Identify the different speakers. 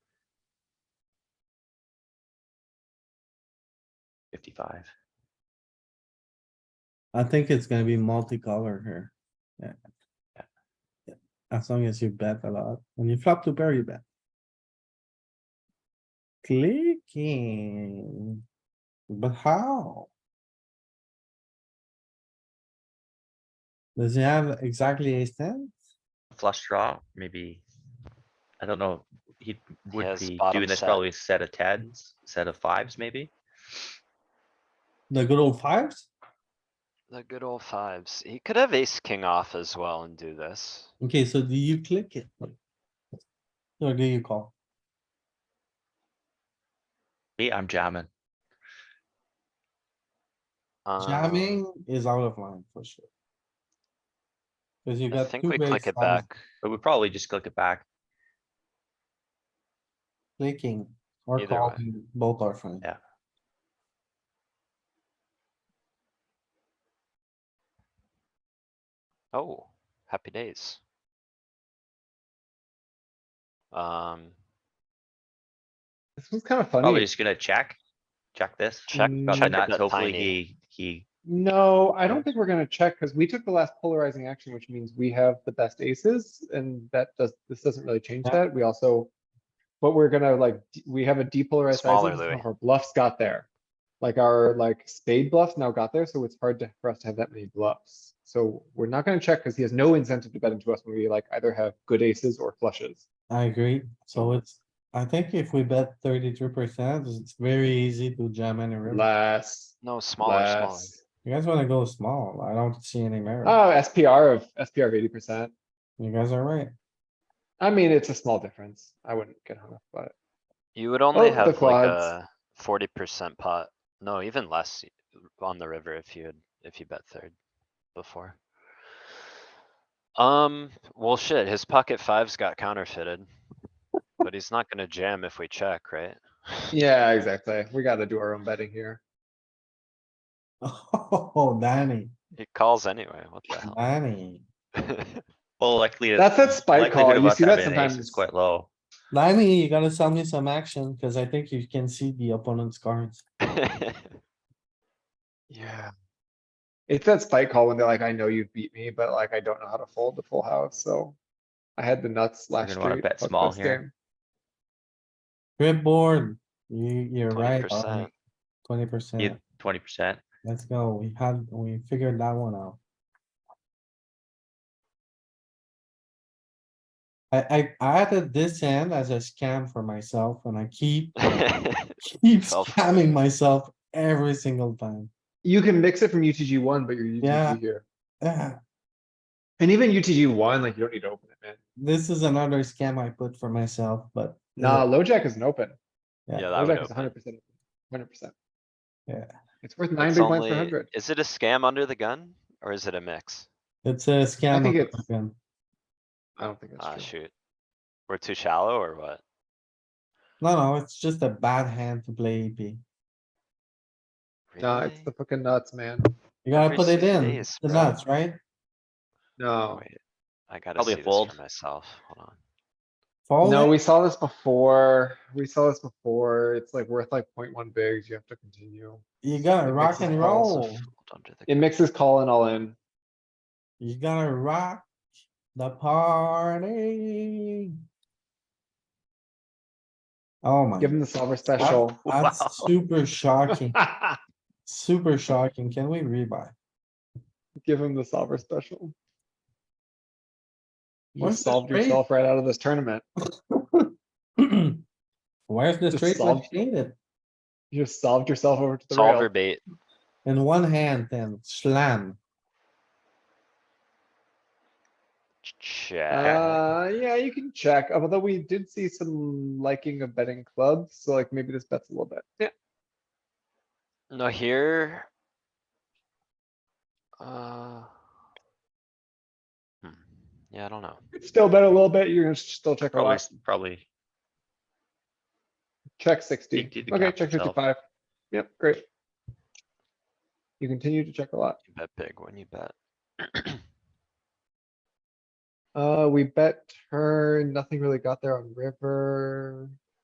Speaker 1: fifty-five.
Speaker 2: I think it's gonna be multicolor here. Yeah. Yeah. As long as you bet a lot, when you flop to pair, you bet. Clicking. But how? Does he have exactly ace ten?
Speaker 3: flush draw, maybe. I don't know, he would
Speaker 1: has
Speaker 3: be
Speaker 1: bottom
Speaker 3: doing this
Speaker 1: set.
Speaker 3: probably a set of tens, set of fives maybe.
Speaker 2: The good old fives?
Speaker 1: The good old fives. He could have ace king off as well and do this.
Speaker 2: Okay, so do you click it? Or do you call?
Speaker 3: Me, I'm jamming.
Speaker 1: Um,
Speaker 2: Jamming is out of line for sure. Cause you
Speaker 1: I
Speaker 2: got
Speaker 1: think
Speaker 2: two
Speaker 1: we
Speaker 2: big
Speaker 1: click it
Speaker 2: sides
Speaker 1: back.
Speaker 3: But we probably just click it back.
Speaker 2: clicking or
Speaker 1: Either way.
Speaker 2: calling, both are fine.
Speaker 3: Yeah.
Speaker 1: Oh, happy days. Um,
Speaker 2: This is kinda
Speaker 3: Probably
Speaker 2: funny.
Speaker 3: just gonna check. Check this.
Speaker 1: check,
Speaker 2: Mm.
Speaker 1: check
Speaker 3: Probably
Speaker 1: it
Speaker 3: not.
Speaker 1: that
Speaker 3: Hopefully
Speaker 1: tiny.
Speaker 3: he, he,
Speaker 4: No, I
Speaker 3: Yeah.
Speaker 4: don't think we're gonna check, cause we took the last polarizing action, which means we have the best aces, and that does, this doesn't really change
Speaker 2: Yeah.
Speaker 4: that, we also. But we're gonna like, d- we have a depolarized
Speaker 1: Smaller
Speaker 4: sizing, so
Speaker 1: Louis.
Speaker 4: our bluffs got there. Like our, like spade bluffs now got there, so it's hard to, for us to have that many bluffs. So we're not gonna check, cause he has no incentive to bet into us when we like either have good aces or flushes.
Speaker 2: I agree. So it's, I think if we bet thirty-three percent, it's very easy to jam in a river.
Speaker 4: Less,
Speaker 1: no, smaller, smaller.
Speaker 4: less.
Speaker 2: You guys wanna go small. I don't see any merit.
Speaker 4: Oh, SPR of, SPR of eighty percent.
Speaker 2: You guys are right.
Speaker 4: I mean, it's a small difference. I wouldn't get hung up about it.
Speaker 1: You would only
Speaker 4: Oh, the
Speaker 1: have like
Speaker 4: quads.
Speaker 1: a forty percent pot, no, even less on the river if you had, if you bet third before. Um, well, shit, his pocket fives got counterfeited. But he's not gonna jam if we check, right?
Speaker 4: Yeah, exactly. We gotta do our own betting here.
Speaker 2: Oh, Danny,
Speaker 1: He calls anyway, what the hell?
Speaker 2: Danny,
Speaker 3: well, likely.
Speaker 4: That's that spike call.
Speaker 3: likelihood of
Speaker 4: You
Speaker 3: us
Speaker 4: see that
Speaker 3: having an ace is
Speaker 4: sometimes.
Speaker 3: Quite low.
Speaker 2: Danny, you gotta sell me some action, cause I think you can see the opponent's cards.
Speaker 4: Yeah. It's that spike call when they're like, I know you beat me, but like, I don't know how to fold the full house, so. I had the nuts
Speaker 3: You're
Speaker 4: last
Speaker 3: gonna wanna
Speaker 4: street.
Speaker 3: bet
Speaker 4: fuck
Speaker 3: small
Speaker 4: this
Speaker 3: here.
Speaker 4: game.
Speaker 2: Rip board, you, you're
Speaker 1: Twenty
Speaker 2: right,
Speaker 1: percent,
Speaker 2: twenty percent.
Speaker 3: Twenty percent.
Speaker 2: Let's go. We had, we figured that one out. I, I, I added this end as a scam for myself and I keep, keep
Speaker 1: Fell for
Speaker 2: scamming
Speaker 1: it.
Speaker 2: myself every single time.
Speaker 4: You can mix it from UTG one, but you're
Speaker 2: Yeah.
Speaker 4: UTG here.
Speaker 2: Ah,
Speaker 4: And even UTG one, like, you don't need to open it, man.
Speaker 2: This is another scam I put for myself, but.
Speaker 4: Nah, low jack isn't open.
Speaker 2: Yeah,
Speaker 1: yeah,
Speaker 4: Low
Speaker 1: that would
Speaker 4: jack is
Speaker 1: open.
Speaker 4: hundred percent, hundred percent.
Speaker 2: Yeah.
Speaker 4: It's worth nine
Speaker 1: It's
Speaker 4: big blinds
Speaker 1: only-
Speaker 4: per hundred.
Speaker 1: Is it a scam under the gun or is it a mix?
Speaker 2: It's a scam.
Speaker 4: think
Speaker 2: of
Speaker 4: it's-
Speaker 2: scam.
Speaker 4: I don't think
Speaker 1: Ah,
Speaker 4: that's true.
Speaker 1: shoot. We're too shallow or what?
Speaker 2: No, no, it's just a bad hand to play E EP.
Speaker 4: Nah,
Speaker 1: Really?
Speaker 4: it's
Speaker 1: Oh,
Speaker 4: the fucking nuts, man.
Speaker 2: You gotta
Speaker 1: Every
Speaker 2: put it
Speaker 1: single
Speaker 2: in.
Speaker 1: day
Speaker 2: It's
Speaker 1: is
Speaker 2: the
Speaker 1: bad.
Speaker 2: nuts, right?
Speaker 4: No.
Speaker 1: Wait, I gotta
Speaker 3: Probably a
Speaker 1: see this
Speaker 3: fold.
Speaker 1: for myself, hold on.
Speaker 2: Fold
Speaker 4: No,
Speaker 2: it.
Speaker 4: we saw this before. We saw this before. It's like worth like 0.1 bigs. You have to continue.
Speaker 2: You gotta
Speaker 4: it
Speaker 2: rock
Speaker 4: mixes
Speaker 2: and
Speaker 4: calls.
Speaker 2: roll.
Speaker 1: Fold under the
Speaker 4: It
Speaker 1: gun.
Speaker 4: mixes call and all in.
Speaker 2: You gotta rock the party. Oh my,
Speaker 4: Give him the solver
Speaker 2: That-
Speaker 4: special.
Speaker 3: Wow.
Speaker 2: that's super shocking, super shocking. Can we rebuy?
Speaker 4: Give him the solver special. You
Speaker 2: Where's the
Speaker 4: solved
Speaker 2: straight?
Speaker 4: yourself right out of this tournament.
Speaker 2: Where's the
Speaker 4: Just
Speaker 2: straight
Speaker 4: solve-
Speaker 2: located?
Speaker 4: You just solved yourself over to the
Speaker 1: Solver
Speaker 4: rail.
Speaker 1: bait,
Speaker 2: In one hand then slam.
Speaker 1: Ch- check,
Speaker 4: Uh, yeah, you can check, although we did see some liking of betting clubs, so like maybe this bets a little bit. Yeah.
Speaker 1: no here. Uh. hmm. Yeah, I don't know,
Speaker 4: it's Still bet a little bit. You're gonna still check a
Speaker 3: Probably,
Speaker 4: lot.
Speaker 3: s- probably.
Speaker 4: Check sixty.
Speaker 3: did the
Speaker 4: Okay,
Speaker 3: gap
Speaker 4: check
Speaker 3: itself.
Speaker 4: fifty-five. Yep, great. You continue to check a lot.
Speaker 1: you bet big when you bet.
Speaker 4: Uh, we bet turn, nothing really got there on river.